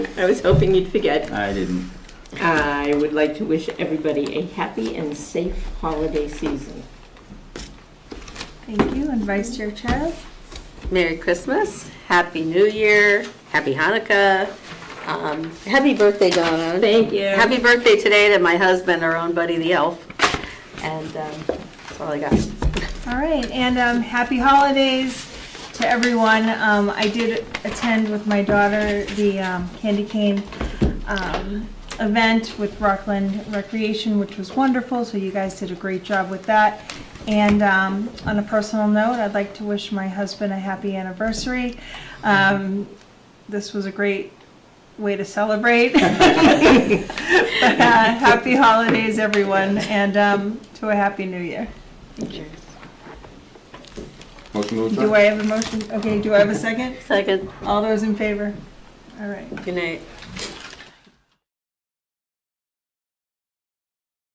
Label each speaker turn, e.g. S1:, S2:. S1: I was hoping you'd forget.
S2: I didn't.
S1: I would like to wish everybody a happy and safe holiday season.
S3: Thank you, and Vice Chair Child?
S4: Merry Christmas, Happy New Year, Happy Hanukkah, um, Happy Birthday, Donna.
S1: Thank you.
S4: Happy birthday today to my husband, our own buddy, the elf. And um, that's all I got.
S3: All right, and um, happy holidays to everyone. Um, I did attend with my daughter the um, candy cane um, event with Rockland Recreation, which was wonderful, so you guys did a great job with that. And um, on a personal note, I'd like to wish my husband a happy anniversary. Um, This was a great way to celebrate. But, uh, Happy holidays, everyone, and um, to a happy new year.
S2: Motion to
S3: Do
S2: adjourn.
S3: I have a motion? Okay, do I have a second?
S4: Second,
S3: All those in favor? All right.
S4: good night.